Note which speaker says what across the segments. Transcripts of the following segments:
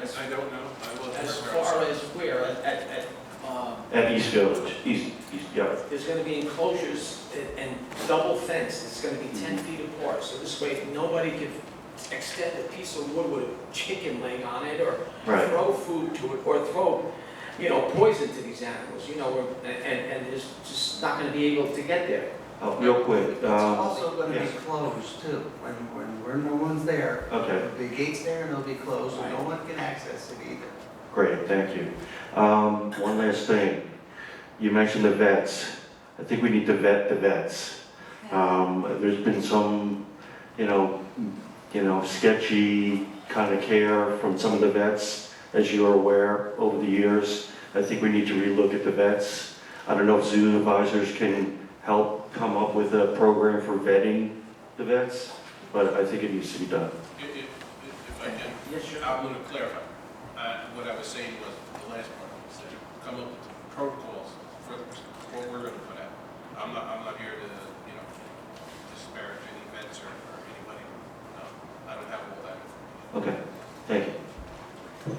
Speaker 1: Yes,
Speaker 2: I don't know. I will.
Speaker 1: as far as where, at, at, at, um,
Speaker 3: At East Village, East, East, yeah.
Speaker 1: there's gonna be enclosures and- and double fence, it's gonna be ten feet apart, so this way, nobody can extend a piece of wood with a chicken leg on it, or
Speaker 3: Right.
Speaker 1: throw food to it, or throw, you know, poison to these animals, you know, we're- and, and, and it's just not gonna be able to get there.
Speaker 3: Uh, Real quick,
Speaker 4: It's
Speaker 3: uh,
Speaker 4: also gonna be
Speaker 3: yes.
Speaker 4: closed too, when, when, when no one's there.
Speaker 3: okay,
Speaker 4: The gate's there and it'll be closed, so no
Speaker 1: Right.
Speaker 4: one can access it either.
Speaker 3: great, thank you. Um, One last thing. You mentioned the vets. I think we need to vet the vets. Um, There's been some, you know, you know, sketchy kind of care from some of the vets, as you're aware, over the years. I think we need to relook at the vets. I don't know if zoo advisors can help come up with a program for vetting the vets, but I think it needs to be done.
Speaker 2: If, if, if I can,
Speaker 1: Yes, sure.
Speaker 2: I want to clarify. Uh, what I was saying was the last part, is that you come up with protocols for what we're going to put out. I'm not, I'm not here to, you know, disparage any vets or, or anybody. No, I don't have all that.
Speaker 3: Okay, thank you.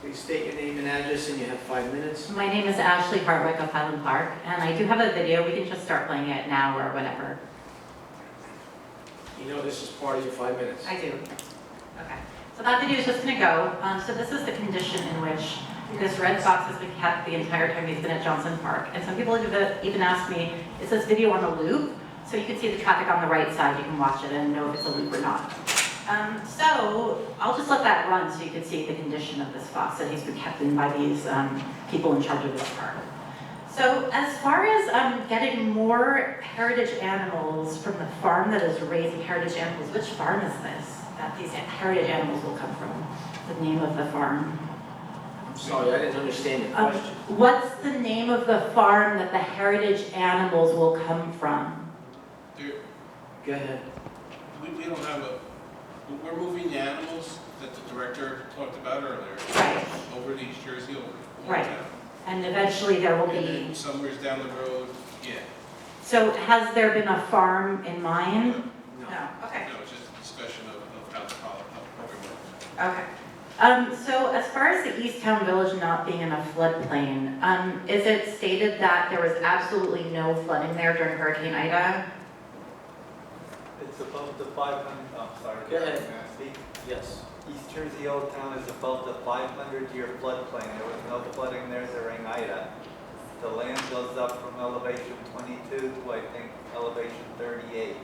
Speaker 1: Please state your name and address, and you have five minutes.
Speaker 5: My name is Ashley Hardwick of Highland Park, and I do have a video. We can just start playing it now or whenever.
Speaker 1: You know this is part of your five minutes.
Speaker 5: I do. Okay. So that video is just going to go. Um, So this is the condition in which this red box has been kept the entire time he's been at Johnson Park. And some people have even- even asked me, is this video on a loop? So you can see the traffic on the right side, you can watch it and know if it's a loop or not. Um, So I'll just let that run so you can see the condition of this box that he's been kept in by these um, people in charge of this park. So as far as um, getting more heritage animals from the farm that is raising heritage animals, which farm is this that these heritage animals will come from? The name of the farm.
Speaker 1: I'm sorry, I didn't understand your
Speaker 5: Um,
Speaker 1: question.
Speaker 5: What's the name of the farm that the heritage animals will come from?
Speaker 2: There,
Speaker 1: Go ahead.
Speaker 2: we, we don't have a, we're moving the animals that the director talked about earlier
Speaker 5: Right.
Speaker 2: over to East Jersey, over. over
Speaker 5: Right.
Speaker 2: town.
Speaker 5: And eventually there will
Speaker 2: And
Speaker 5: be.
Speaker 2: then somewhere's down the road, yeah,
Speaker 5: So has there been a farm in mind?
Speaker 1: No.
Speaker 5: Okay.
Speaker 2: no, it's just a discussion of, of how the poli- how the program works.
Speaker 5: Okay. Um, so as far as the East Town Village not being in a floodplain, um, is it stated that there was absolutely no flooding there during Hurricane Ida?
Speaker 6: It's above the 500, I'm Oh, sorry.
Speaker 1: Go ahead.
Speaker 6: Can I speak?
Speaker 1: Yes.
Speaker 6: East Jersey Old Town is above the 500-year floodplain. There was no flooding there during Ida. The land goes up from elevation 22 to, I think, elevation 38.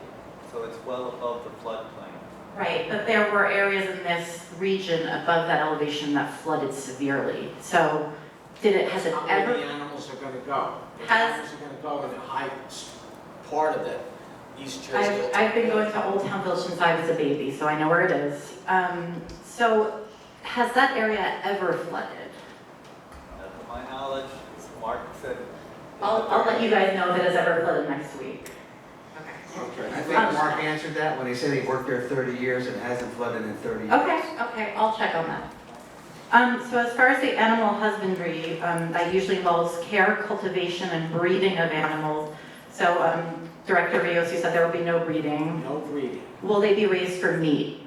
Speaker 6: So it's well above the floodplain.
Speaker 5: Right, but there were areas in this region above that elevation that flooded severely. So did it, has it
Speaker 1: How where the
Speaker 5: ever?
Speaker 1: animals are gonna go. The
Speaker 5: Has-
Speaker 1: animals are gonna go in the high s- part of that East Jersey.
Speaker 5: I've, I've been going to Old Town Village since I was a baby, so I know where it is. Um, so has that area ever flooded?
Speaker 6: Now, to my knowledge, as Mark said.
Speaker 5: I'll, I'll let you guys know if it has ever flooded next week. Okay.
Speaker 4: I
Speaker 1: Okay.
Speaker 4: think
Speaker 5: Um,
Speaker 4: Mark answered that when he said he worked there thirty years and hasn't flooded in thirty years.
Speaker 5: Okay, okay, I'll check on that. Um, so as far as the animal husbandry, um, that usually involves care, cultivation, and breeding of animals. So, um, Director Rios, you said there will be no breeding.
Speaker 1: No breeding.
Speaker 5: Will they be raised for meat?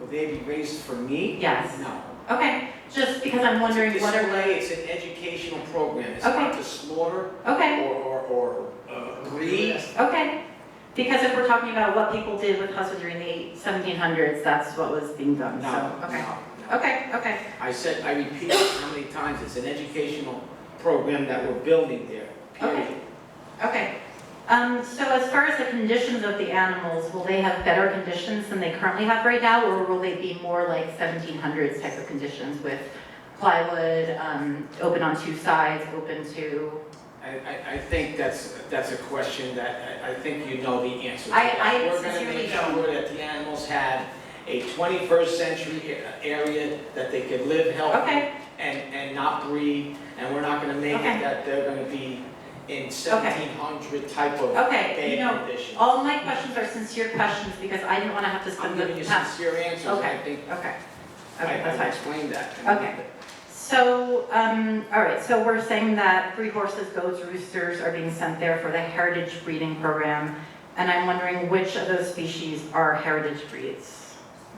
Speaker 1: Will they be raised for meat?
Speaker 5: Yes.
Speaker 1: No.
Speaker 5: Okay, just because I'm wondering what are,
Speaker 1: Display, it's an educational program. It's not
Speaker 5: Okay.
Speaker 1: to slaughter or,
Speaker 5: okay,
Speaker 1: or, or uh, breed.
Speaker 5: okay. Because if we're talking about what people did with husbandry in the seventeen hundreds, that's what was being
Speaker 1: No,
Speaker 5: done,
Speaker 1: no,
Speaker 5: so, okay.
Speaker 1: no.
Speaker 5: Okay, okay,
Speaker 1: I said, I repeat how many times, it's an educational program that we're building there, period.
Speaker 5: Okay. Um, so as far as the conditions of the animals, will they have better conditions than they currently have right now? Or will they be more like 1700s type of conditions with plywood, um, open on two sides, open to?
Speaker 1: I, I, I think that's, that's a question that, I, I think you know the answer to.
Speaker 5: I-
Speaker 1: that.
Speaker 5: I
Speaker 1: We're
Speaker 5: sincerely
Speaker 1: gonna
Speaker 5: don't.
Speaker 1: make sure that the animals have a twenty-first century a- area that they can live healthy
Speaker 5: Okay,
Speaker 1: and, and not breed, and we're not gonna make it
Speaker 5: Okay.
Speaker 1: that they're gonna be in seventeen hundred type of
Speaker 5: okay, you know,
Speaker 1: bad condition.
Speaker 5: all my questions are sincere questions because I didn't want to have to
Speaker 1: I'm
Speaker 5: spend
Speaker 1: giving you
Speaker 5: the past.
Speaker 1: sincere answers, I
Speaker 5: Okay.
Speaker 1: think,
Speaker 5: Okay,
Speaker 1: I,
Speaker 5: okay,
Speaker 1: I
Speaker 5: that's fine.
Speaker 1: explained that.
Speaker 5: Okay. So, um, all right, so we're saying that three horses, goats, roosters are being sent there for the heritage breeding program. And I'm wondering which of those species are heritage breeds?